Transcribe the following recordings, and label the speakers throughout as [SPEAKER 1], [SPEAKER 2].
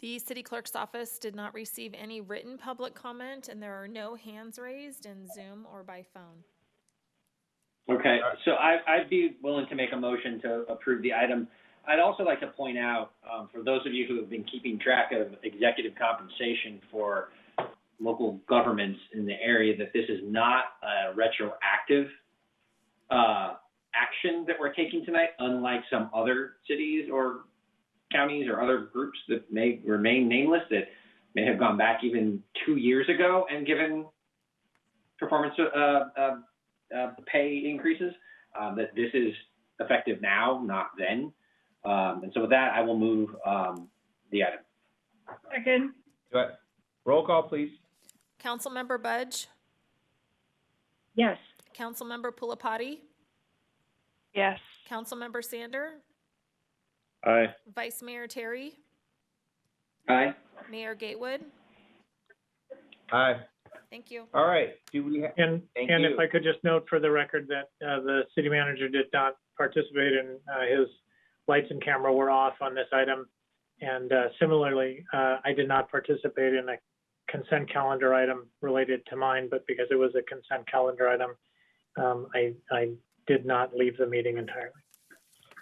[SPEAKER 1] The city clerk's office did not receive any written public comment, and there are no hands raised in Zoom or by phone.
[SPEAKER 2] Okay, so I, I'd be willing to make a motion to approve the item. I'd also like to point out, um, for those of you who have been keeping track of executive compensation for local governments in the area, that this is not a retroactive, uh, action that we're taking tonight, unlike some other cities or counties or other groups that may remain nameless that may have gone back even two years ago and given performance, uh, uh, uh, pay increases, um, that this is effective now, not then. Um, and so with that, I will move, um, the item.
[SPEAKER 3] Second,
[SPEAKER 4] Do I- Roll call, please.
[SPEAKER 1] Councilmember Budge,
[SPEAKER 3] yes.
[SPEAKER 1] Councilmember Pulapati,
[SPEAKER 3] Yes.
[SPEAKER 1] Councilmember Sander,
[SPEAKER 4] Aye.
[SPEAKER 1] Vice Mayor Terry,
[SPEAKER 2] Aye.
[SPEAKER 1] Mayor Gatewood.
[SPEAKER 4] Aye.
[SPEAKER 1] Thank you.
[SPEAKER 4] All right. Do we, ha-
[SPEAKER 5] And,
[SPEAKER 4] Thank
[SPEAKER 5] and
[SPEAKER 4] you.
[SPEAKER 5] if I could just note for the record that uh, the city manager did not participate and uh, his lights and camera were off on this item. And uh, similarly, uh, I did not participate in a consent calendar item related to mine, but because it was a consent calendar item, um, I, I did not leave the meeting entirely.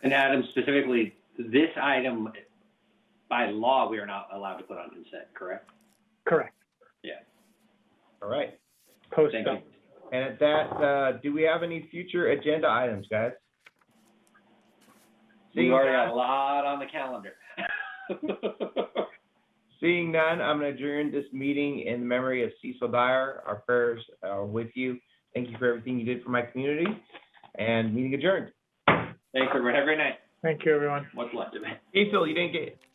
[SPEAKER 2] And Adam, specifically, this item, by law, we are not allowed to put on consent, correct?
[SPEAKER 5] Correct.
[SPEAKER 4] all right.
[SPEAKER 5] Post.
[SPEAKER 2] Thank
[SPEAKER 5] uh,
[SPEAKER 2] you.
[SPEAKER 4] And at that, uh, do we have any future agenda items, guys?
[SPEAKER 2] We've
[SPEAKER 4] Seeing
[SPEAKER 2] already got
[SPEAKER 4] none,
[SPEAKER 2] a lot on the calendar.
[SPEAKER 4] seeing none, I'm going to adjourn this meeting in memory of Cecil Dyer. Our prayers are with you. Thank you for everything you did for my community and meeting adjourned.
[SPEAKER 2] Thanks, everyone. Have a great night.
[SPEAKER 5] Thank you, everyone.
[SPEAKER 2] What's left of it?
[SPEAKER 4] Cecil, you didn't get,